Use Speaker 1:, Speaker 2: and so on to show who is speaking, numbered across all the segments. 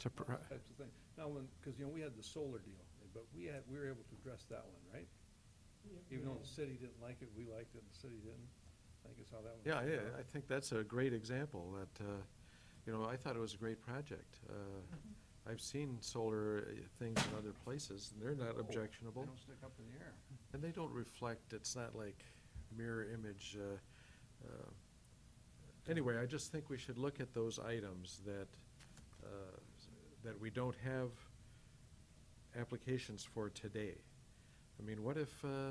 Speaker 1: to, pr-
Speaker 2: types of thing. Now, when, because, you know, we had the solar deal, but we had, we were able to address that one, right? Even though the city didn't like it, we liked it, and the city didn't. I think it's how that one.
Speaker 1: yeah,
Speaker 2: worked
Speaker 1: yeah,
Speaker 2: out.
Speaker 1: I think that's a great example that, uh, you know, I thought it was a great project. Uh, I've seen solar uh, things in other places, and they're not
Speaker 2: Oh,
Speaker 1: objectionable,
Speaker 2: They don't stick up in the air.
Speaker 1: and they don't reflect, it's not like mirror image. uh, uh, Anyway, I just think we should look at those items that, uh, that we don't have applications for today. I mean, what if, uh,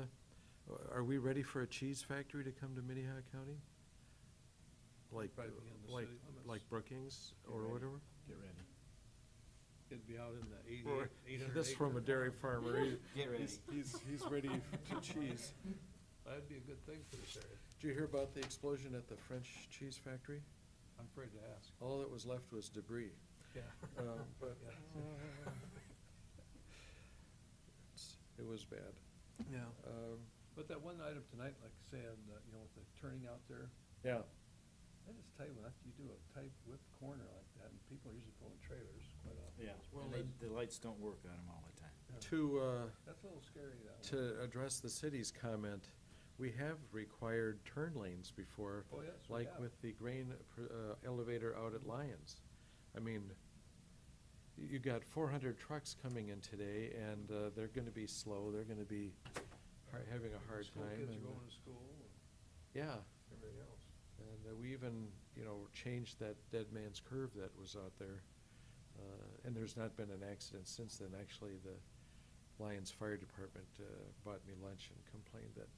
Speaker 1: are we ready for a cheese factory to come to Minnehaha County? Like,
Speaker 2: Probably be in the
Speaker 1: like,
Speaker 2: city limits.
Speaker 1: like Brookings
Speaker 2: Get
Speaker 1: or
Speaker 2: ready.
Speaker 1: whatever?
Speaker 3: Get ready.
Speaker 2: It'd be out in the eighty,
Speaker 1: Or-
Speaker 2: eight hundred.
Speaker 1: This from a dairy farmer. he-
Speaker 3: Get ready.
Speaker 1: he's- He's, he's ready to cheese.
Speaker 2: That'd be a good thing for this area.
Speaker 1: Did you hear about the explosion at the French cheese factory?
Speaker 2: I'm afraid to ask.
Speaker 1: All that was left was debris.
Speaker 2: Yeah.
Speaker 1: Oh. Uh, But
Speaker 2: Yeah.
Speaker 1: it's- it was bad.
Speaker 3: Yeah.
Speaker 1: Um,
Speaker 2: But that one item tonight, like I said, uh, you know, with the turning out there,
Speaker 1: Yeah,
Speaker 2: that is tight, when you do a tight whip corner like that, and people are usually pulling trailers quite often.
Speaker 3: Yeah,
Speaker 2: Well,
Speaker 3: and they, the lights don't work on them all the time.
Speaker 1: to, uh,
Speaker 2: That's a little scary, that one.
Speaker 1: to address the city's comment, we have required turn lanes before.
Speaker 2: Oh, yes, we
Speaker 1: Like
Speaker 2: have.
Speaker 1: with the grain pr- uh, elevator out at Lyons. I mean, y- you got four hundred trucks coming in today, and uh, they're gonna be slow, they're gonna be har- having a hard
Speaker 2: School
Speaker 1: time.
Speaker 2: Kids are
Speaker 1: and, uh,
Speaker 2: going to school and
Speaker 1: Yeah,
Speaker 2: everything else.
Speaker 1: and uh, we even, you know, changed that dead man's curve that was out there. Uh, And there's not been an accident since then. Actually, the Lyons Fire Department uh, bought me lunch and complained that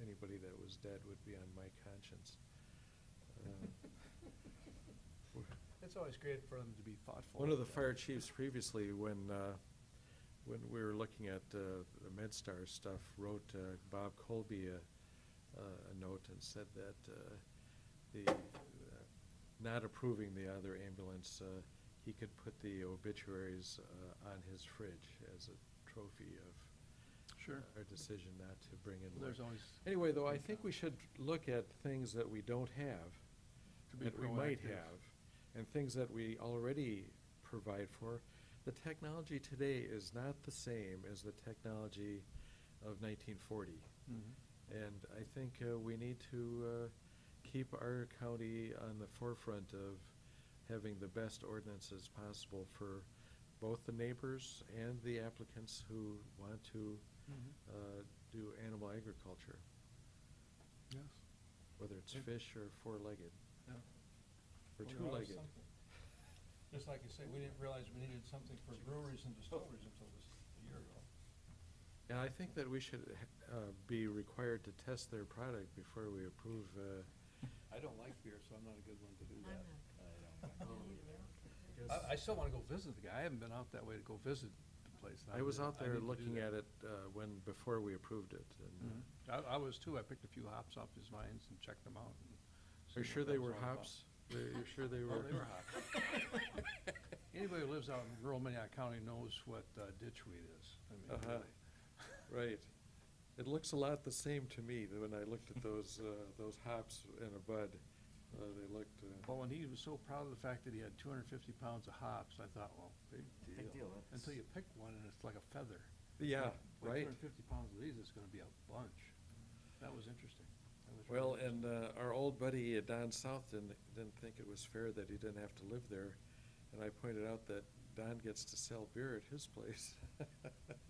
Speaker 1: anybody that was dead would be on my conscience. Uh,
Speaker 2: It's always great for them to be thoughtful.
Speaker 1: One of the
Speaker 2: like
Speaker 1: fire
Speaker 2: that.
Speaker 1: chiefs previously, when, uh, when we were looking at uh, the MedStar stuff, wrote uh, Bob Colby a, uh, a- a note and said that uh, the, uh, not approving the other ambulance, uh, he could put the obituaries uh, on his fridge as a trophy of
Speaker 2: Sure.
Speaker 1: our decision not to bring uh, in.
Speaker 2: There's
Speaker 1: one.
Speaker 2: always.
Speaker 1: Anyway, though, I think we should look at things that we don't have
Speaker 2: To be
Speaker 1: that we might
Speaker 2: proactive.
Speaker 1: have, and things that we already provide for. The technology today is not the same as the technology of nineteen forty.
Speaker 2: Mm-hmm.
Speaker 1: And I think uh, we need to uh, keep our county on the forefront of having the best ordinances possible for both the neighbors and the applicants who want to
Speaker 2: Mm-hmm.
Speaker 1: uh, do animal agriculture,
Speaker 2: Yes.
Speaker 1: whether it's
Speaker 2: Yeah.
Speaker 1: fish or four-legged,
Speaker 2: Yeah.
Speaker 1: or
Speaker 2: Well, there are
Speaker 1: two-legged.
Speaker 2: some- Just like you say, we didn't realize we needed something for breweries and distilleries until this a year ago.
Speaker 1: And I think that we should uh, be required to test their product before we approve. uh,
Speaker 2: I don't like beer, so I'm not a good one to do
Speaker 4: I'm
Speaker 2: that.
Speaker 4: not.
Speaker 2: I, I still wanna go visit the guy. I haven't been out that way to go visit the place.
Speaker 1: I was out there
Speaker 2: need to do
Speaker 1: looking
Speaker 2: that.
Speaker 1: at it uh, when, before we approved it. and, uh,
Speaker 2: I, I was too. I picked a few hops off his vines and checked them out. and
Speaker 1: Are you
Speaker 2: seen
Speaker 1: sure
Speaker 2: what that
Speaker 1: they
Speaker 2: was
Speaker 1: were
Speaker 2: all about.
Speaker 1: hops? Are you sure they were?
Speaker 2: Oh, they were hops. Anybody who lives out in rural Minnehaha County knows what uh, ditchweed is. I mean,
Speaker 1: Uh-huh.
Speaker 2: really.
Speaker 1: Right. It looks a lot the same to me than when I looked at those, uh, those hops in a bud. Uh, They looked, uh,
Speaker 2: Well, and he was so proud of the fact that he had two hundred and fifty pounds of hops, I thought, well, big deal.
Speaker 3: Big deal, that's-
Speaker 2: Until you pick one and it's like a feather.
Speaker 1: yeah,
Speaker 2: Two
Speaker 1: right.
Speaker 2: hundred and fifty pounds of these, it's gonna be a bunch. That was interesting. That was
Speaker 1: Well,
Speaker 2: really interesting.
Speaker 1: and uh, our old buddy uh, Don South didn't, didn't think it was fair that he didn't have to live there. And I pointed out that Don gets to sell beer at his place.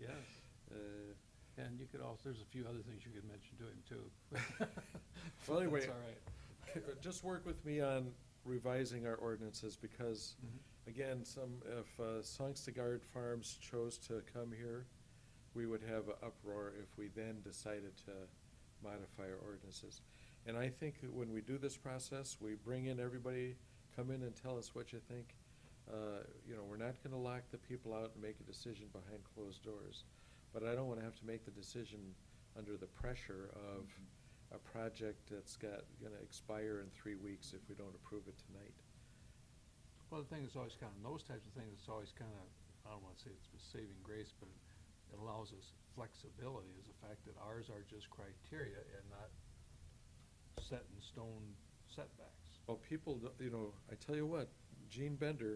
Speaker 2: Yes,
Speaker 1: Uh,
Speaker 2: and you could also, there's a few other things you could mention to him too.
Speaker 1: Well, anyway,
Speaker 2: That's all right.
Speaker 1: c- uh, just work with me on revising our ordinances because,
Speaker 2: Mm-hmm.
Speaker 1: again, some, if uh, Sangstagard Farms chose to come here, we would have an uproar if we then decided to modify our ordinances. And I think that when we do this process, we bring in everybody, come in and tell us what you think. Uh, You know, we're not gonna lock the people out and make a decision behind closed doors. But I don't wanna have to make the decision under the pressure of a project that's got, gonna expire in three weeks if we don't approve it tonight.
Speaker 2: Well, the thing is always kind of, those types of things, it's always kind of, I don't want to say it's a saving grace, but it allows us flexibility is the fact that ours are just criteria and not set in stone setbacks.
Speaker 1: Well, people, don't- you know, I tell you what, Gene Bender